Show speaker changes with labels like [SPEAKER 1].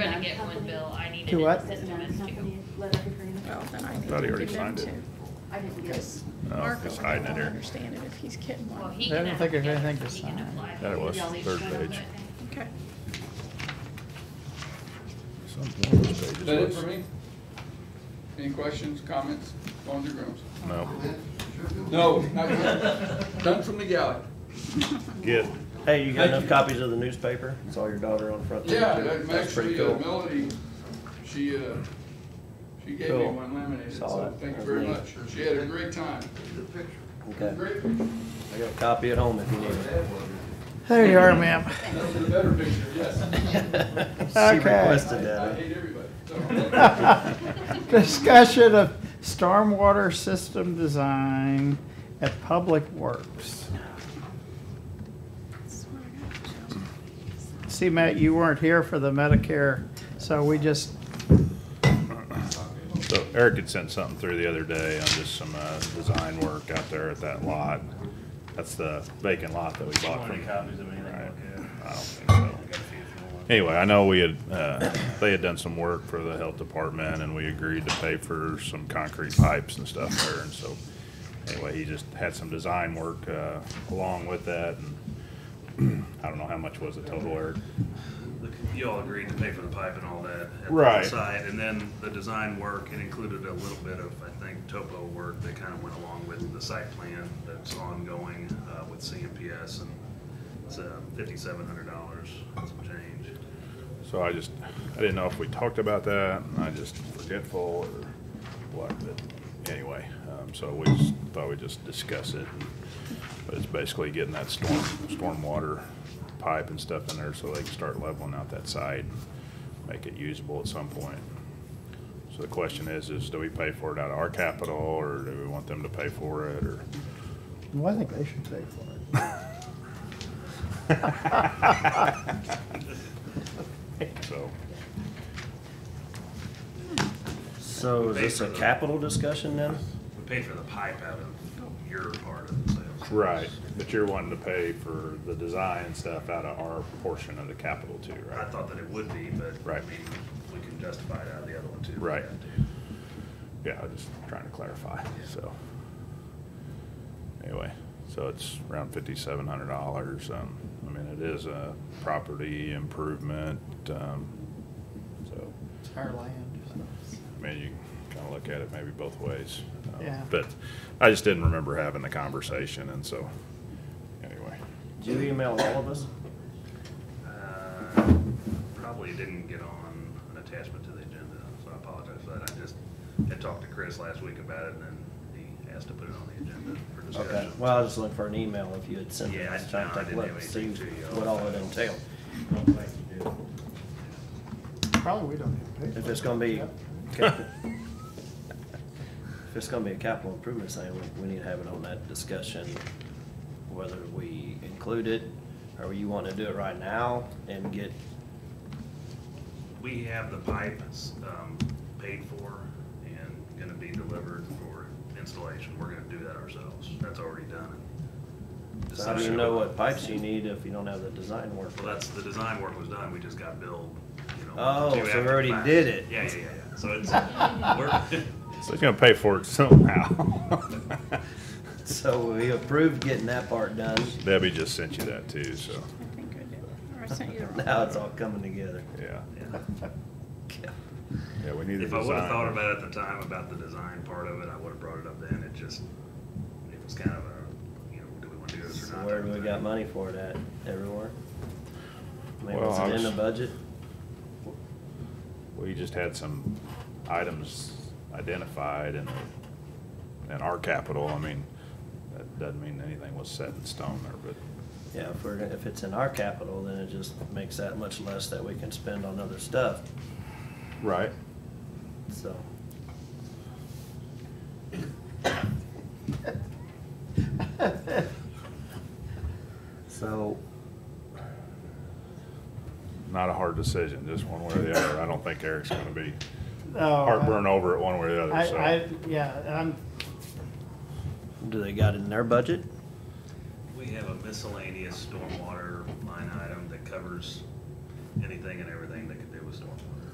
[SPEAKER 1] To what?
[SPEAKER 2] No,
[SPEAKER 3] It says
[SPEAKER 2] it's not gonna
[SPEAKER 3] domestic.
[SPEAKER 2] be a letter of agreement.
[SPEAKER 4] Well, then I
[SPEAKER 5] I
[SPEAKER 4] need
[SPEAKER 5] thought he
[SPEAKER 4] to
[SPEAKER 5] already
[SPEAKER 4] give them
[SPEAKER 5] signed it.
[SPEAKER 4] to,
[SPEAKER 2] I didn't get it.
[SPEAKER 4] because
[SPEAKER 5] No,
[SPEAKER 4] Marco
[SPEAKER 5] it's
[SPEAKER 4] will
[SPEAKER 5] hiding it
[SPEAKER 4] not
[SPEAKER 5] here.
[SPEAKER 4] understand it if he's getting
[SPEAKER 3] Well,
[SPEAKER 4] one.
[SPEAKER 3] he
[SPEAKER 1] I
[SPEAKER 3] can.
[SPEAKER 1] don't think there's
[SPEAKER 3] applicant,
[SPEAKER 1] anything to
[SPEAKER 3] he can
[SPEAKER 1] sign.
[SPEAKER 3] apply.
[SPEAKER 5] That it was,
[SPEAKER 2] Y'all each
[SPEAKER 5] third
[SPEAKER 2] sign on
[SPEAKER 5] page.
[SPEAKER 2] that thing.
[SPEAKER 4] Okay.
[SPEAKER 5] Some one of those pages
[SPEAKER 6] Is that it
[SPEAKER 5] was-
[SPEAKER 6] for me? Any questions, comments, phones or rooms?
[SPEAKER 5] No.
[SPEAKER 6] No, not done. Done from the galley.
[SPEAKER 5] Get,
[SPEAKER 7] Hey, you got
[SPEAKER 6] Thank
[SPEAKER 7] enough
[SPEAKER 6] you.
[SPEAKER 7] copies of the newspaper? I saw your daughter on the front. page,
[SPEAKER 6] Yeah,
[SPEAKER 7] too.
[SPEAKER 6] that-
[SPEAKER 7] That's pretty
[SPEAKER 6] actually, uh,
[SPEAKER 7] cool.
[SPEAKER 6] Melody, she, uh, she gave me
[SPEAKER 7] Cool.
[SPEAKER 6] one laminated,
[SPEAKER 7] Saw
[SPEAKER 6] so
[SPEAKER 7] it.
[SPEAKER 6] thank you
[SPEAKER 7] That's
[SPEAKER 6] very
[SPEAKER 7] neat.
[SPEAKER 6] much. She had a great time.
[SPEAKER 7] Okay,
[SPEAKER 6] Great, picture.
[SPEAKER 7] I got a copy at home if you need it.
[SPEAKER 1] There you are, ma'am.
[SPEAKER 6] that's a better picture, yes.
[SPEAKER 7] She
[SPEAKER 1] Okay.
[SPEAKER 7] requested
[SPEAKER 6] I I
[SPEAKER 7] that. eh?
[SPEAKER 6] hate everybody. so.
[SPEAKER 1] Discussion of stormwater system design at Public Works. See, Matt, you weren't here for the Medicare, so we just,
[SPEAKER 5] so Eric had sent something through the other day on just some, uh, design work out there at that lot. That's the vacant lot that we bought from. Right. I don't think so. Anyway, I know we had, uh, they had done some work for the health department and we agreed to pay for some concrete pipes and stuff there and so. Anyway, he just had some design work, uh, along with that and I don't know how much was the total, Eric?
[SPEAKER 8] You all agreed to pay for the pipe and all that. at the
[SPEAKER 5] Right.
[SPEAKER 8] Side, and then the design work, it included a little bit of, I think, topo work that kind of went along with the site plan that's ongoing, uh, with CMPS, and it's, uh, fifty-seven hundred dollars, some change.
[SPEAKER 5] So I just, I didn't know if we talked about that, and I just forgetful or what, but anyway, um, so we just thought we'd just discuss it. But it's basically getting that storm, stormwater pipe and stuff in there so they can start leveling out that site, make it usable at some point. So the question is, is do we pay for it out of our capital, or do we want them to pay for it, or?
[SPEAKER 1] well, I think they should pay for it.
[SPEAKER 5] So,
[SPEAKER 7] So is this a capital discussion then?
[SPEAKER 8] We paid for the pipe out of your part of the sales.
[SPEAKER 5] right, but you're wanting to pay for the design stuff out of our portion of the capital too, right?
[SPEAKER 8] I thought that it would be, but. I
[SPEAKER 5] Right.
[SPEAKER 8] mean, We can justify it out of the other one too. if we
[SPEAKER 5] Right.
[SPEAKER 8] had to.
[SPEAKER 5] Yeah, I was just trying to clarify, so. Anyway, so it's around fifty-seven hundred dollars, um, I mean, it is a property improvement, um, so,
[SPEAKER 1] It's our land.
[SPEAKER 5] I mean, you can kinda look at it maybe both ways. um,
[SPEAKER 1] Yeah.
[SPEAKER 5] But I just didn't remember having the conversation, and so, anyway,
[SPEAKER 7] Did you email all of us?
[SPEAKER 8] Uh, Probably didn't get on an attachment to the agenda, so I apologize for that. I just had talked to Chris last week about it, and then he asked to put it on the agenda for
[SPEAKER 7] Okay,
[SPEAKER 8] discussion.
[SPEAKER 7] well, I was just looking for an email if you had sent it.
[SPEAKER 8] Yeah, I-
[SPEAKER 7] I was trying
[SPEAKER 8] no, I
[SPEAKER 7] to take a
[SPEAKER 8] didn't
[SPEAKER 7] look,
[SPEAKER 8] have
[SPEAKER 7] see
[SPEAKER 8] anything to you.
[SPEAKER 7] what all it entailed.
[SPEAKER 1] Probably we don't have to pay for it.
[SPEAKER 7] If it's gonna be, capi- if it's gonna be a capital improvement thing, we, we need to have it on that discussion, whether we include it, or you wanna do it right now and get,
[SPEAKER 8] We have the pipe um, paid for and gonna be delivered for installation. We're gonna do that ourselves. That's already done.
[SPEAKER 7] so how do you know what pipes you need if you don't have the design work?
[SPEAKER 8] Well, that's, the design work was done, we just got billed, you know.
[SPEAKER 7] Oh,
[SPEAKER 8] two
[SPEAKER 7] so we
[SPEAKER 8] after the
[SPEAKER 7] already
[SPEAKER 8] fact.
[SPEAKER 7] did it.
[SPEAKER 8] Yeah, yeah, yeah, yeah. So it's, we're,
[SPEAKER 5] so he's gonna pay for it somehow.
[SPEAKER 7] So we approved getting that part done,
[SPEAKER 5] Debbie just sent you that too, so,
[SPEAKER 4] I think I did, or I sent you the wrong.
[SPEAKER 7] now it's all coming together.
[SPEAKER 5] yeah,
[SPEAKER 8] yeah.
[SPEAKER 5] yeah, we need the
[SPEAKER 8] If I would have
[SPEAKER 5] design.
[SPEAKER 8] thought about it at the time, about the design part of it, I would have brought it up then, it just, it was kind of a, you know, do we want to do this
[SPEAKER 7] So
[SPEAKER 8] or not?
[SPEAKER 7] where do we
[SPEAKER 8] type of
[SPEAKER 7] got
[SPEAKER 8] thing.
[SPEAKER 7] money for that, everywhere? I mean,
[SPEAKER 5] Well,
[SPEAKER 7] was
[SPEAKER 5] I
[SPEAKER 7] it in
[SPEAKER 5] was-
[SPEAKER 7] the budget?
[SPEAKER 5] We just had some items identified in, in our capital. I mean, that doesn't mean anything was set in stone there,
[SPEAKER 7] Yeah, if we're, gonna- if it's in our capital, then it just makes that much less that we can spend on other stuff,
[SPEAKER 5] but. Right.
[SPEAKER 7] so. So,
[SPEAKER 5] Not a hard decision, just one way or the other. I don't think Eric's gonna be
[SPEAKER 1] No, Oh, I-
[SPEAKER 5] heartburn over it one way or the
[SPEAKER 1] I,
[SPEAKER 5] other,
[SPEAKER 1] I,
[SPEAKER 5] so.
[SPEAKER 1] yeah, I'm,
[SPEAKER 7] do they got it in their budget?
[SPEAKER 8] We have a miscellaneous stormwater line item that covers anything and everything that could do with stormwater.